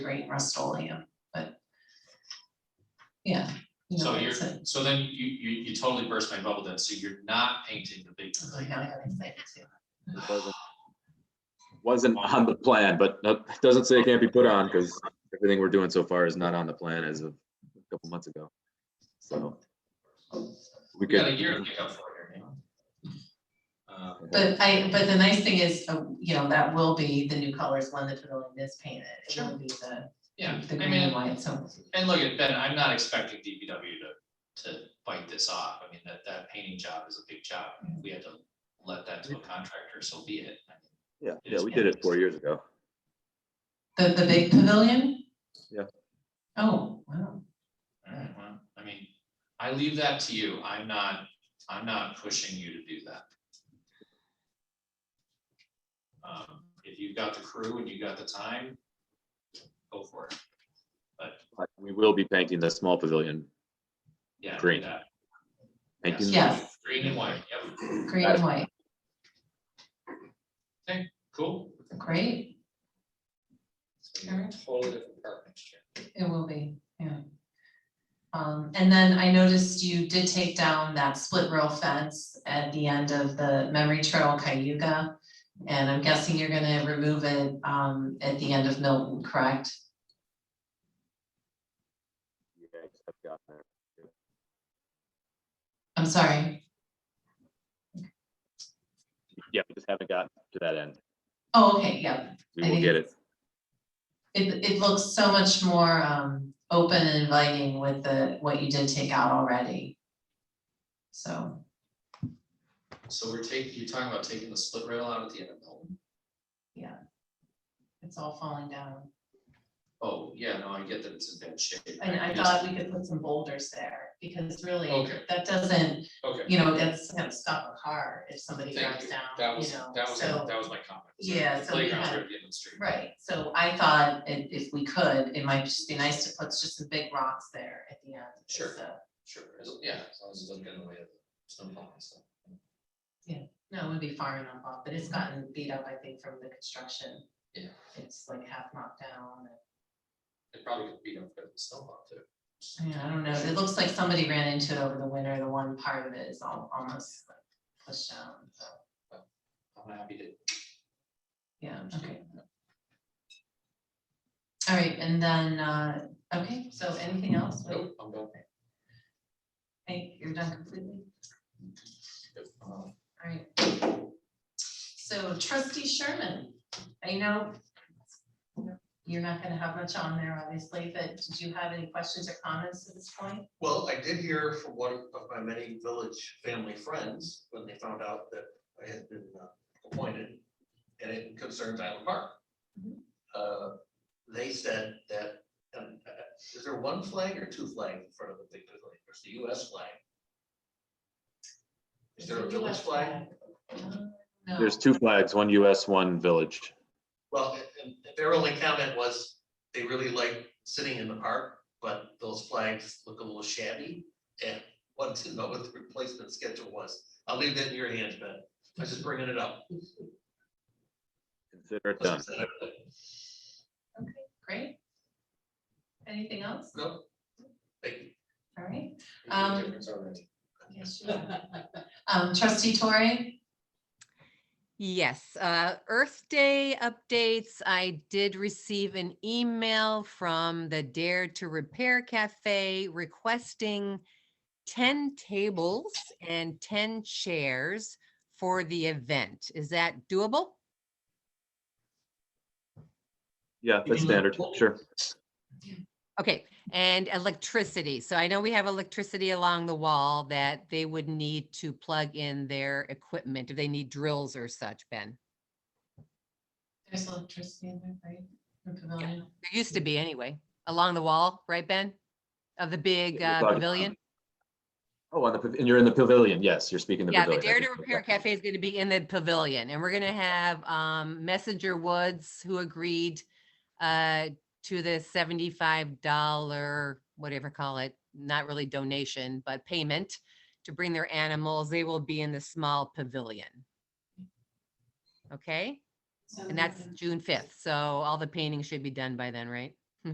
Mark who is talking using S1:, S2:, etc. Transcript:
S1: great Rust-Oleum, but. Yeah. you know,
S2: So you're,
S1: it's a-
S2: so then you, you, you totally burst my bubble then, so you're not painting the big
S1: I
S2: pavilion.
S1: know, I'm excited too.
S3: It wasn't- Wasn't on the plan, but no- it doesn't say it can't be put on because everything we're doing so far is not on the plan as of a couple months ago. So.
S2: We
S3: We
S2: got a year to
S3: could,
S2: make up for it here, man. Um,
S1: But I, but the nice thing is, uh, you know, that will be the new colors when the pavilion is painted. It will be the,
S2: Yeah,
S1: the
S2: I
S1: green and
S2: mean,
S1: white, so.
S2: and look at Ben, I'm not expecting DPW to, to bite this off. I mean, that, that painting job is a big job. I mean, If we had to let that to a contractor, so be it. I mean,
S3: yeah, yeah, we did it four years ago.
S1: The, the big pavilion?
S3: Yeah.
S1: Oh, wow.
S2: Alright, well, I mean, I leave that to you. I'm not, I'm not pushing you to do that. Um, if you've got the crew and you've got the time, go for it.
S3: But We will be painting the small pavilion.
S2: Yeah. do
S3: Green.
S2: that.
S3: Painting,
S1: Yeah. Yes.
S2: Green and white, yep,
S1: Green and white,
S2: cool.
S1: great.
S2: So you're a Totally different part next year.
S1: It will be, yeah. Um, and then I noticed you did take down that split rail fence at the end of the Memory Trail Cayuga. And I'm guessing you're gonna remove it, um, at the end of Milton, correct?
S3: yeah, I've got that.
S1: I'm sorry.
S3: Yeah, we just haven't gotten to that end.
S1: Oh, okay, yeah.
S3: We
S1: I
S3: will
S1: think
S3: get it.
S1: it's- It, it looks so much more, um, open and inviting with the, what you did take out already. So,
S2: So we're taking, you're talking about taking the split rail out at the end of Milton?
S1: it's all falling down.
S2: Oh, yeah, no, I get that it's in bad shape.
S1: And I
S2: just-
S1: thought we could put some boulders there, because really,
S2: Okay.
S1: that doesn't,
S2: Okay,
S1: you know, that's gonna stop a car if somebody
S2: thank
S1: drives
S2: you.
S1: down,
S2: That
S1: you
S2: was,
S1: know,
S2: that was,
S1: so-
S2: that was my comment.
S1: Yeah, so we
S2: Playgrounds
S1: had-
S2: are at the end of the street.
S1: Right, so I thought if, if we could, it might just be nice to put just some big rocks there at the end. uh, just
S2: Sure.
S1: to-
S2: Sure, as- yeah, as long as it doesn't get in the way of the snowplow and stuff.
S1: No, it would be far enough off, but it's gotten beat up, I think, from the construction.
S2: Yeah.
S1: It's like half knocked down,
S2: It probably could beat up the snowplow too.
S1: and, yeah, I don't know, it looks like somebody ran into it over the winter, the one part of it is al- almost like pushed down, so,
S2: I'm happy to.
S1: yeah, okay. All right, and then, uh, okay, so anything else? Wait,
S2: Nope, I'm going.
S1: Hey, you're done completely?
S2: Nope, I'm
S1: All
S2: on.
S1: right. So trustee Sherman, I know you're not gonna have much on there, obviously, but did you have any questions or comments at this point?
S4: Well, I did hear from one of my many village family friends when they found out that I had been uh, appointed and it concerns Island Park.
S1: Mhm.
S4: Uh, They said that, um, uh, is there one flag or two flags in front of the big pavilion? There's the US flag. Is there a village flag?
S1: No.
S3: There's two flags, one US, one village.
S4: Well, and and their only comment was they really like sitting in the park, but those flags look a little shabby. And wanted to know what the replacement schedule was. I'll leave that in your hands, Ben. I'm just bringing it up.
S3: Consider it done.
S1: Okay, great. Anything else?
S4: No. Thank you.
S1: All right,
S2: We made a
S1: Um,
S2: difference already.
S1: yes, you um, trustee Torrey?
S5: Yes, uh, Earth Day updates. I did receive an email from the Dare to Repair Cafe requesting 10 tables and 10 chairs for the event. Is that doable?
S3: Yeah, that's standard, sure.
S5: Okay, and electricity. So I know we have electricity along the wall that they would need to plug in their equipment if they need drills or such, Ben.
S1: There's electricity in there, right? The pavilion?
S5: There used to be anyway, along the wall, right, Ben? Of the big
S3: we're
S5: uh,
S3: talking about
S5: pavilion?
S3: Oh, on the, pav- and you're in the pavilion, yes, you're speaking the
S5: Yeah,
S3: pavilion.
S5: the
S3: I
S5: Dare to
S3: think-
S5: Repair Cafe is gonna be in the pavilion and we're gonna have um Messenger Woods who agreed uh to the seventy-five dollar, whatever call it, not really donation, but payment to bring their animals. They will be in the small pavilion.
S1: Um.
S5: Okay, and that's June fifth, so all the painting should be done by then, right?